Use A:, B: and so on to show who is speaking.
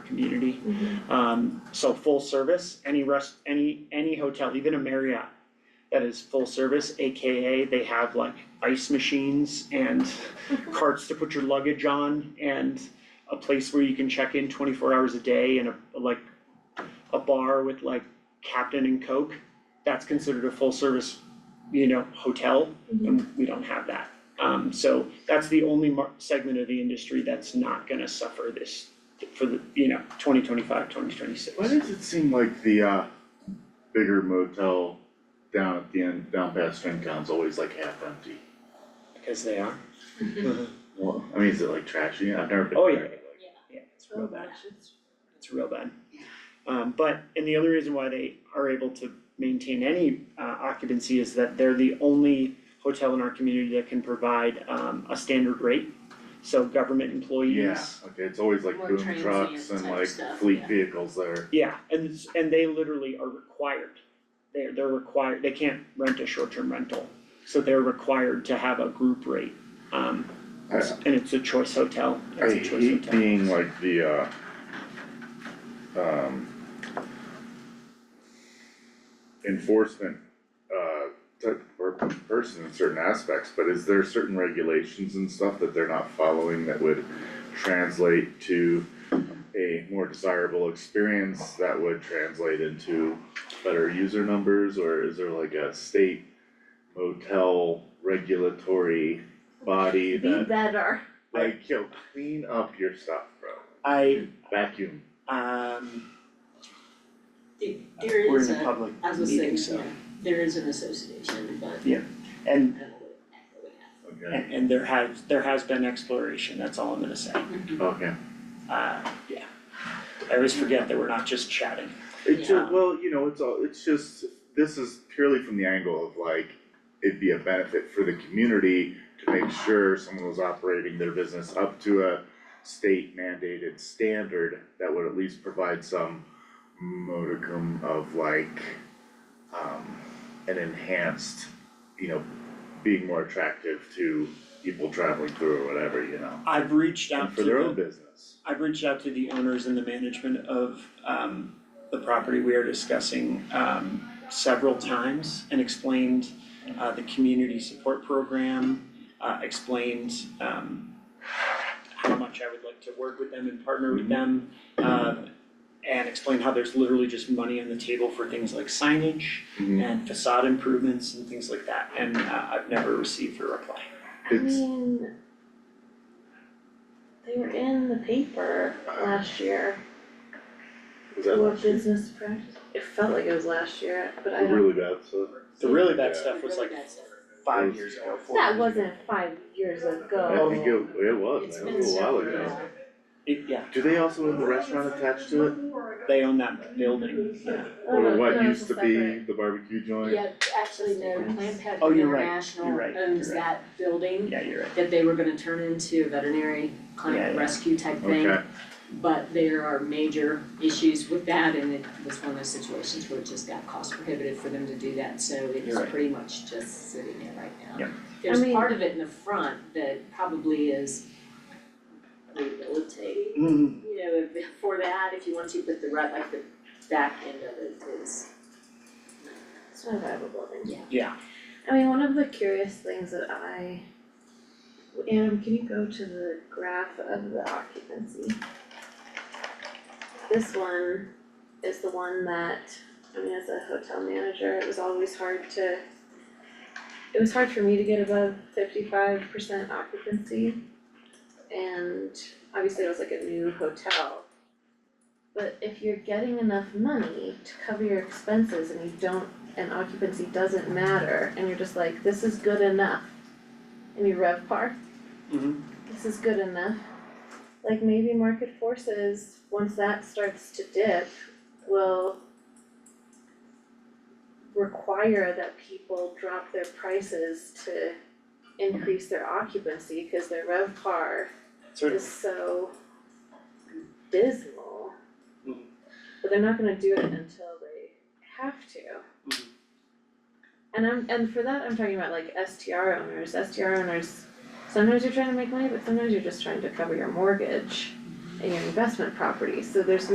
A: community. Um, so full service, any rest, any, any hotel, even a Marriott that is full service, AKA they have like ice machines and carts to put your luggage on and a place where you can check in twenty-four hours a day and a, like, a bar with like Captain and Coke, that's considered a full service, you know, hotel, and we don't have that. Um, so that's the only mar- segment of the industry that's not gonna suffer this for the, you know, 2025, 2026.
B: Why does it seem like the uh bigger motel down at the end, down past FinCom's always like half empty?
A: Because they are.
B: Well, I mean, is it like trashy? I've never been
A: Oh,
B: there.
A: yeah. Yeah, it's real
C: Oh,
A: bad.
C: gosh, it's-
A: It's real bad. Um, but, and the only reason why they are able to maintain any uh, occupancy is that they're the only hotel in our community that can provide um, a standard rate. So government
B: Yeah,
A: employees.
B: okay, it's always like
C: More
B: boom trucks
C: transient
B: and
C: type
B: like
C: stuff,
B: fleet
C: yeah.
B: vehicles there.
A: Yeah, and it's- and they literally are required. They're they're required, they can't rent a short-term rental. So they're required to have a group rate. Um,
B: I-
A: and it's a choice hotel. It's
B: I
A: a choice
B: hate
A: hotel.
B: being like the uh um enforcement uh type or person in certain aspects, but is there certain regulations and stuff that they're not following that would translate to a more desirable experience that would translate into better user numbers, or is there like a state motel regulatory body
C: Be
B: that
C: better.
B: like, yo, clean up your stuff, bro.
A: I,
B: Vacuum.
A: um,
C: There- There
A: we're
C: is
A: in a
C: a,
A: public
C: I was saying,
A: meeting, so,
C: yeah, there is an association, but I
A: and,
C: don't know what exactly what happened.
B: Okay.
A: and, and there has, there has been exploration, that's all I'm gonna say.
B: Okay.
A: Uh, yeah. I always forget that we're not just chatting.
B: It's
A: Yeah.
B: just, well, you know, it's all, it's just, this is purely from the angle of like, it'd be a benefit for the community to make sure someone was operating their business up to a state mandated standard that would at least provide some modicum of like, um, an enhanced, you know, being more attractive to people traveling through or whatever, you know,
A: I've reached
B: and
A: out
B: for
A: to
B: their own
A: the,
B: business.
A: I've reached out to the owners and the management of, um, the property we are discussing, um, several times and explained, uh, the community support program, uh, explained, um, how much I would like to work with them and partner
B: Mm-hmm.
A: with them, um, and explained how there's literally just money on the table for things like signage,
B: Mm-hmm.
A: and facade improvements and things like that, and uh, I've never received a reply.
C: I
B: It's-
C: mean, they were in the paper last year,
B: Is that
C: what business practice, it felt like it was last year, but I
B: the
C: don't.
B: really bad stuff?
A: The really bad
B: Yeah.
A: stuff was like five years ago, four years
D: That
A: ago.
D: wasn't five years
B: I
D: ago.
B: think it, it was,
C: It's
B: man,
C: been
B: it was a while
C: several
B: ago.
C: years.
A: It- yeah,
B: Do they also have the restaurant attached to it?
A: they own that building, yeah.
D: Oh, no,
B: Or what
D: no, it's
B: used
D: a
B: to be
D: separate.
B: the barbecue joint?
E: Oh, Yeah, actually, no, Planned
A: Oh,
E: Parenthood
A: you're right. You're
E: International
A: right.
E: owns
A: You're right.
E: that building
A: Yeah, you're right.
E: that they were gonna turn into a veterinary
A: Yeah,
E: clinic
A: yeah.
E: rescue type thing.
B: Okay,
E: But there are major issues with that and it was one of those situations where it just got cost prohibitive for them to do that, so it's
A: You're right.
E: pretty much just sitting there right now.
A: Yep.
D: I
E: There's
D: mean-
E: part of it in the front that probably is rehabilitating,
A: Mm,
E: you know, if- for that, if you want to, but the right, like the back end of it is,
D: It's not a viable building.
A: yeah,
D: I mean, one of the curious things that I, Adam, can you go to the graph of the occupancy? This one is the one that, I mean, as a hotel manager, it was always hard to, it was hard for me to get above fifty-five percent occupancy. And obviously it was like a new hotel. But if you're getting enough money to cover your expenses and you don't, and occupancy doesn't matter, and you're just like, this is good enough. And you rev par,
A: mhm.
D: this is good enough. Like maybe market forces, once that starts to dip, will require that people drop their prices to increase their occupancy, cause their rev par
A: sort of,
D: is so dismal.
A: Mhm.
D: But they're not gonna do it until they have to.
A: Mhm.
D: And I'm, and for that, I'm talking about like STR owners, STR owners, sometimes you're trying to make money, but sometimes you're just trying to cover your mortgage. in your investment property, so there's